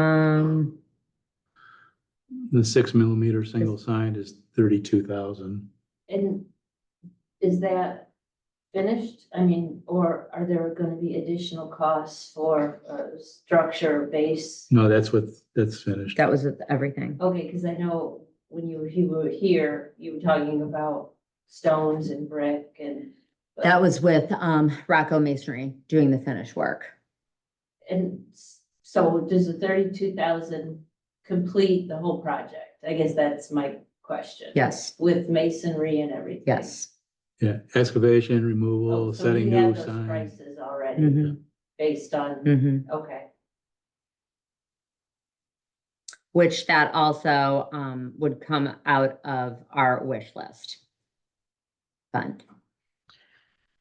Um, The six millimeter single sign is thirty-two thousand. And is that finished? I mean, or are there gonna be additional costs for uh, structure, base? No, that's what, that's finished. that was with everything. Okay, because I know when you, you were here, you were talking about stones and brick and. but- That was with, um, Rocco Masonry doing the finish work. And s- so does the thirty-two thousand complete the whole project? I guess that's my question. Yes, With masonry and everything. yes. Yeah, excavation, removal, Oh, so setting we have new those signs. Prices already Mhm, based on, mhm. okay, Which that also, um, would come out of our wish list. Fund,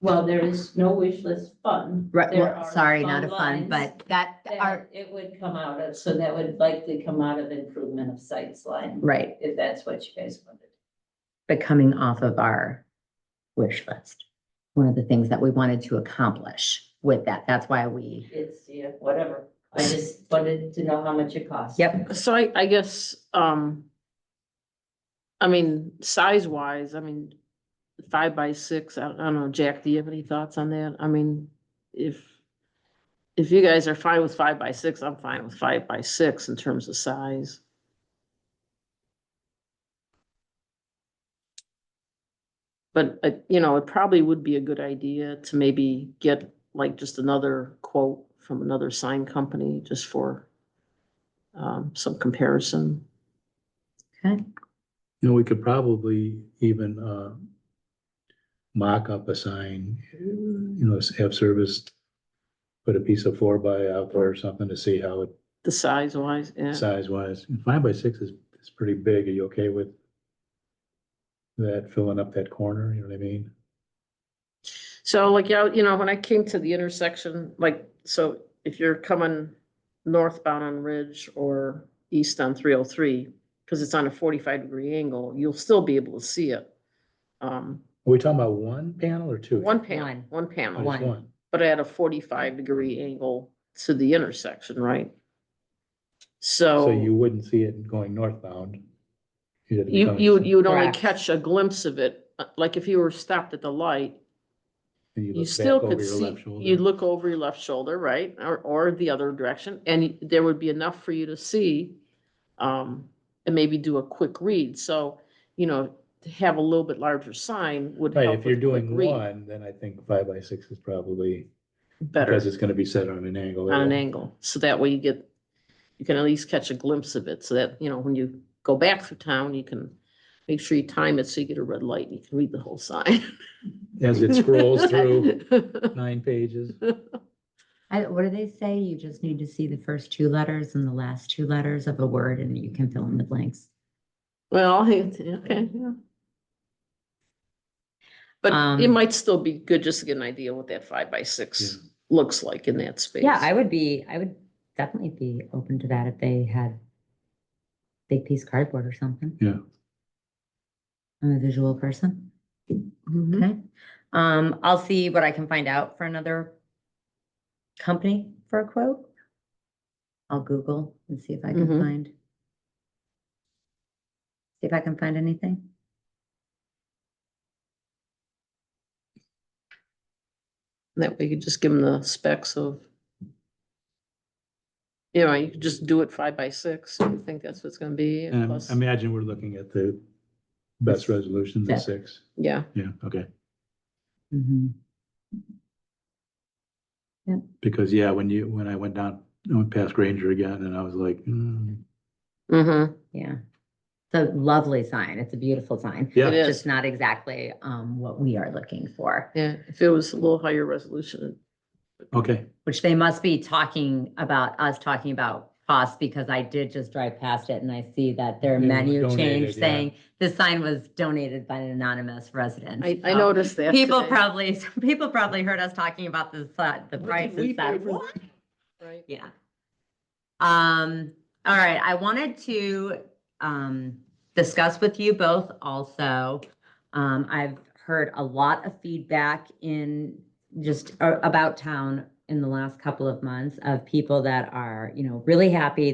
well, there is no wish list fund. right, There well, are sorry, not a fund, lines but that that are, It would come out of, so that would likely come out of improvement of sites line, right, if that's what you guys wanted. but coming off of our wish list. One of the things that we wanted to accomplish with that, that's why we, It's, yeah, whatever. I just wanted to know how much it costs. yep, So I, I guess, um, I mean, size wise, I mean, five by six, I, I don't know, Jack, do you have any thoughts on that? I mean, if, if you guys are fine with five by six, I'm fine with five by six in terms of size. But, uh, you know, it probably would be a good idea to maybe get like just another quote from another sign company just for um, some comparison. okay, You know, we could probably even, uh, mock up a sign, you know, have service, put a piece of four by out there or something to see how it The size wise, yeah, size wise. Five by six is, is pretty big. Are you okay with that filling up that corner? You know what I mean? so like, yeah, you know, when I came to the intersection, like, so if you're coming northbound on Ridge or east on three oh three, because it's on a forty-five degree angle, you'll still be able to see it. Um, Are we talking about one panel or two? one One. panel, one Oh, panel, just one. One. but at a forty-five degree angle to the intersection, right? So. So you wouldn't see it going northbound. You'd have to be You, coming- you, would- you would only Correct. catch a glimpse of it, uh, like if you were stopped at the light, and You look still back over could your see, left shoulder. you'd look over your left shoulder, right, or, or the other direction, and y- there would be enough for you to see. Um, and maybe do a quick read, so, you know, to have a little bit larger sign would Right, help if you're with quick doing read one, then I think five by six is probably, better because it's gonna be set on an angle. on an it'll- angle, so that way you get, you can at least catch a glimpse of it, so that, you know, when you go back through town, you can make sure you time it so you get a red light and you can read the whole sign. As it scrolls through nine pages. I, what do they say? You just need to see the first two letters and the last two letters of a word and you can fill in the blanks. Well, it- okay, yeah. But it Um, might still be good just to get an idea what that five by six Yeah. looks like in that space. Yeah, I would be, I would definitely be open to that if they had big piece cardboard or something. Yeah. I'm a visual person. Mhm. Okay. Um, I'll see what I can find out for another company for a quote. I'll Google and see if I can Mhm. find. See if I can find anything. That way you could just give them the specs of. You know, you could just do it five by six, if you think that's what's gonna be, and And plus, I imagine we're looking at the best resolution, the Yeah. six. yeah, Yeah, okay. Mhm. Because, yeah, when you, when I went down, I went past Granger again and I was like, hmm, mm-hmm, Yeah. It's a lovely sign. It's a beautiful sign. it yeah, is, Just not exactly, um, what we are looking for. yeah, if it was a little higher resolution. okay. Which they must be talking about, us talking about costs, because I did just drive past it and I see that their It was menu donated, change yeah. saying, this sign was donated by an anonymous resident. I, I So noticed that. Oh, People today. probably, people probably heard us talking about the, si- the What did prices we pay that, for that? Right. yeah. Um, all right, I wanted to, um, discuss with you both also. Um, I've heard a lot of feedback in just a- about town in the last couple of months of people that are, you know, really happy